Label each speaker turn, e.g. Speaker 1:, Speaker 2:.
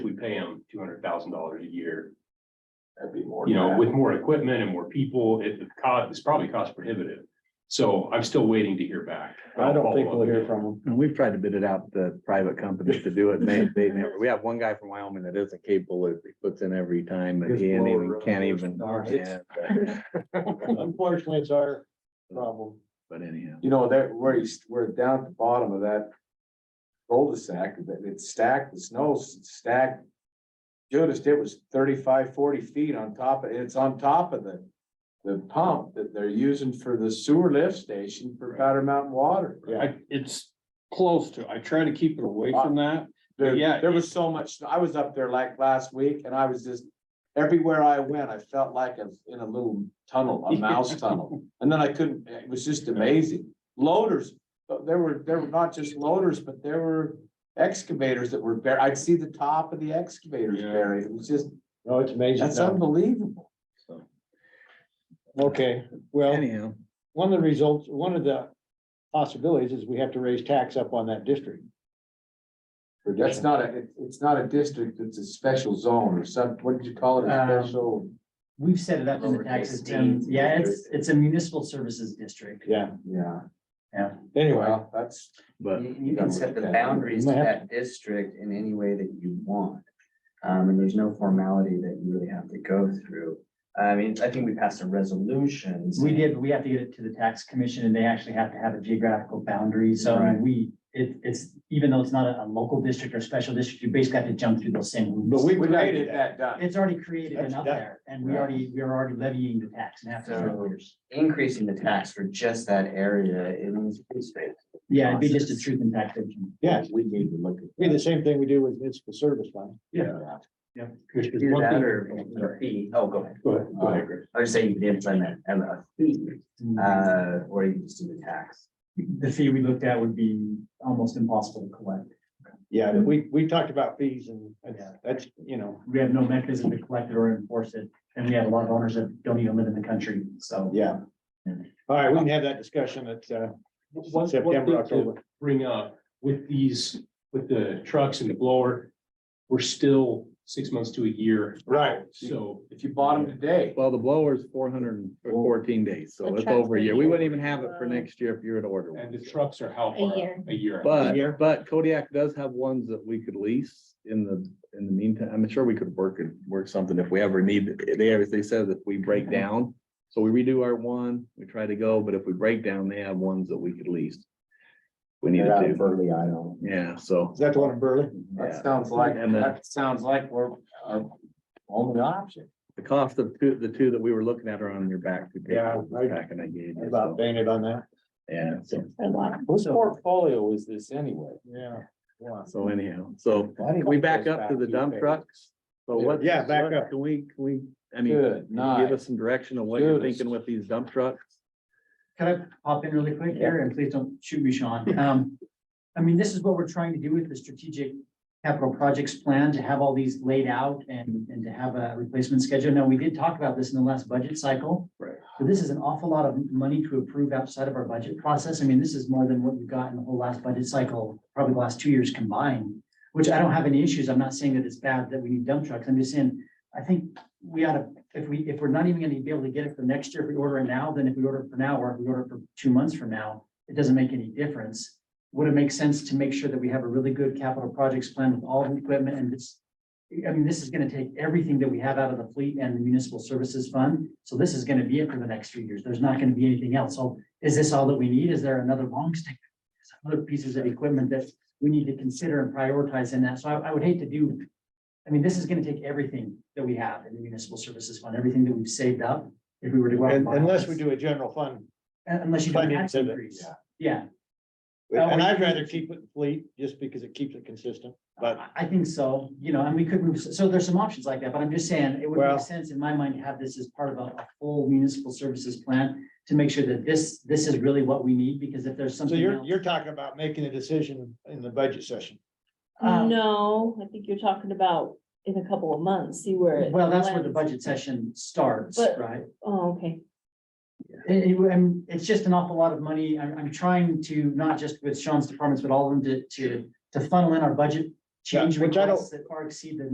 Speaker 1: pay them two hundred thousand dollars a year,
Speaker 2: That'd be more.
Speaker 1: you know,
Speaker 2: than
Speaker 1: with more equipment and more people, it, the cost, it's probably cost prohibitive. So I'm still waiting to hear back.
Speaker 3: I don't think
Speaker 1: Follow up
Speaker 3: we'll hear
Speaker 1: again.
Speaker 3: from them.
Speaker 4: And we've tried to bid it out to private companies to do it. and They, they never, we have one guy from Wyoming that isn't capable. He puts in every time and
Speaker 2: His
Speaker 4: he ain't
Speaker 2: blower
Speaker 4: even,
Speaker 2: really
Speaker 4: can't
Speaker 2: works.
Speaker 4: even.
Speaker 2: No,
Speaker 4: yeah,
Speaker 2: it's-
Speaker 4: But
Speaker 3: Unfortunately, it's our problem.
Speaker 4: but anyhow,
Speaker 2: You know, that, where he's, we're down at the bottom of that cul-de-sac, that it's stacked, the snow's stacked. Noticed it was 35, 40 feet on top, of it's on top of the, the pump that they're using for the sewer lift station for Powder Mountain Water.
Speaker 5: I, it's close to, I try to keep it away from that.
Speaker 2: There,
Speaker 5: Yeah.
Speaker 2: there was so much, I was up there like last week and I was just, everywhere I went, I felt like I was in a little tunnel, a mouse tunnel. And then I couldn't, it was just amazing. Loaders, but there were, there were not just loaders, but there were excavators that were buried. I'd see the top of the excavators
Speaker 5: Yeah.
Speaker 2: buried. It was just,
Speaker 3: No, it's amazing.
Speaker 2: that's
Speaker 3: now.
Speaker 2: unbelievable.
Speaker 3: Okay, well,
Speaker 4: anyhow,
Speaker 3: one of the results, one of the possibilities is we have to raise tax up on that district.
Speaker 2: That's not a, it- it's not a district, it's a special zone or some, what did you call it? A
Speaker 6: Um,
Speaker 2: special,
Speaker 6: We've set it up in the
Speaker 2: Lowercase
Speaker 6: taxes
Speaker 2: d.
Speaker 6: team. Yeah, it's, it's a municipal services district.
Speaker 3: Yeah,
Speaker 2: yeah.
Speaker 3: anyway,
Speaker 2: Well, that's.
Speaker 4: but
Speaker 7: You, you can set the boundaries to that district in any way that you want. Um, and there's no formality that you really have to go through. I mean, I think we passed a resolution.
Speaker 6: We
Speaker 7: saying-
Speaker 6: did, we have to get it to the tax commission and they actually have to have a geographical boundary. So I mean, we, it, it's, even though it's not a, a local district or special district, you basically have to jump through those same
Speaker 3: but
Speaker 6: hoops.
Speaker 3: we
Speaker 2: We gotta get
Speaker 3: created that.
Speaker 2: that done.
Speaker 6: It's already created
Speaker 3: That's
Speaker 6: and up
Speaker 3: done.
Speaker 6: there and we already, we're already levying the tax and after several years.
Speaker 7: Increasing the tax for just that area in this space.
Speaker 6: Yeah, it'd be just a truth in taxation.
Speaker 3: Yeah,
Speaker 2: We need to look at.
Speaker 3: be the same thing we do with municipal service fund.
Speaker 1: Commissioners,
Speaker 7: Do
Speaker 1: one
Speaker 7: that
Speaker 1: thing-
Speaker 7: or or fee. Oh, go ahead.
Speaker 1: Go ahead, go ahead, Greg.
Speaker 7: I was saying you could implement a a fee,
Speaker 6: Mm.
Speaker 7: uh, or you can just do the tax.
Speaker 6: The fee we looked at would be almost impossible to collect.
Speaker 3: Yeah, we, we talked about fees and that's-
Speaker 6: Yeah.
Speaker 3: that's, you know,
Speaker 6: we have no mechanism to collect it or enforce it, and we have a lot of owners that don't even live in the country, so.
Speaker 3: yeah. All right, we can have that discussion at uh,
Speaker 1: One- one
Speaker 3: September,
Speaker 1: thing to-
Speaker 3: October.
Speaker 1: bring up with these, with the trucks and the blower, we're still six months to a year,
Speaker 3: Right.
Speaker 1: so.
Speaker 2: If you bought them today,
Speaker 4: well, the blower's four hundred and fourteen days, so
Speaker 8: The
Speaker 4: it's over a year. We wouldn't even
Speaker 8: truck's
Speaker 4: have it for
Speaker 8: been-
Speaker 4: next year if you were to order
Speaker 1: And the
Speaker 4: one.
Speaker 1: trucks are how
Speaker 8: A
Speaker 1: far?
Speaker 8: year.
Speaker 1: A year.
Speaker 4: But,
Speaker 3: Here.
Speaker 4: but Kodiak does have ones that we could lease in the, in the meantime. I'm sure we could work and work something if we ever need. They, always- they said that we break down. So we redo our one, we try to go, but if we break down, they have ones that we could lease. We need to do,
Speaker 2: Burley, I know.
Speaker 4: yeah, so.
Speaker 3: Is that the one in Burley?
Speaker 2: That sounds like,
Speaker 4: And then-
Speaker 2: that sounds like we're our only option.
Speaker 4: The cost of two, the two that we were looking at are on your back. to take
Speaker 3: Yeah, right.
Speaker 4: Back and I gave you.
Speaker 3: About
Speaker 4: so,
Speaker 3: painted on that.
Speaker 4: Yeah, so,
Speaker 2: Whose portfolio is this anyway?
Speaker 3: Yeah.
Speaker 4: so anyhow, so
Speaker 3: Why do you
Speaker 4: we
Speaker 3: want
Speaker 4: back
Speaker 3: those
Speaker 4: up to the
Speaker 3: two
Speaker 4: dump
Speaker 3: pages?
Speaker 4: trucks. So what?
Speaker 3: Yeah, back
Speaker 4: what
Speaker 3: up.
Speaker 4: Can we, can we, I mean,
Speaker 2: Good
Speaker 4: can you give
Speaker 2: night.
Speaker 4: us some direction of what you're
Speaker 2: Good.
Speaker 4: thinking with these dump trucks?
Speaker 6: Can I pop in really quick here, and please don't shoot me, Sean? Um, I mean, this is what we're trying to do with the strategic capital projects plan, to have all these laid out and, and to have a replacement schedule. Now, we did talk about this in the last budget cycle.
Speaker 4: Right.
Speaker 6: So this is an awful lot of money to approve outside of our budget process. I mean, this is more than what we got in the whole last budget cycle, probably the last two years combined, which I don't have any issues. I'm not saying that it's bad that we need dump trucks. I'm just saying, I think we ought to if we, if we're not even gonna be able to get it for next year, if we order it now, then if we order it for now, or if we order it for two months from now, it doesn't make any difference. Would it make sense to make sure that we have a really good capital projects plan with all the equipment and this? I mean, this is gonna take everything that we have out of the fleet and the municipal services fund, so this is gonna be it for the next few years, there's not gonna be anything else, so is this all that we need? Is there another long stick? Other pieces of equipment that we need to consider and prioritize in that, so I, I would hate to do I mean, this is gonna take everything that we have in the municipal services fund, everything that we've saved up, if we were to go out. and
Speaker 3: And
Speaker 6: buy
Speaker 3: unless we
Speaker 6: this.
Speaker 3: do a general fund.
Speaker 6: Un- Unless you do an
Speaker 3: Finance
Speaker 6: tax
Speaker 3: of it,
Speaker 6: increase, yeah, Well,
Speaker 3: And
Speaker 6: we-
Speaker 3: I'd rather keep it fleet just because it keeps it consistent. But-
Speaker 6: I, I think so, you know, and we could move, so there's some options like that, but I'm just saying, it would
Speaker 3: Well-
Speaker 6: make sense in my mind to have this as part of a, a full municipal services plan to make sure that this, this is really what we need, because if there's
Speaker 3: So
Speaker 6: something
Speaker 3: you're,
Speaker 6: else.
Speaker 3: you're talking about making a decision in the budget session.
Speaker 6: Um,
Speaker 8: No, I think you're talking about in a couple of months, see where. it
Speaker 6: Well, that's where the
Speaker 8: lands.
Speaker 6: budget session starts,
Speaker 8: But-
Speaker 6: right?
Speaker 8: Oh, okay.
Speaker 6: It, it- and it's just an awful lot of money. I'm, I'm trying to, not just with Sean's departments, but all of them to, to, to funnel in our budget change
Speaker 3: Yeah, which I don't-
Speaker 6: requests that far exceed the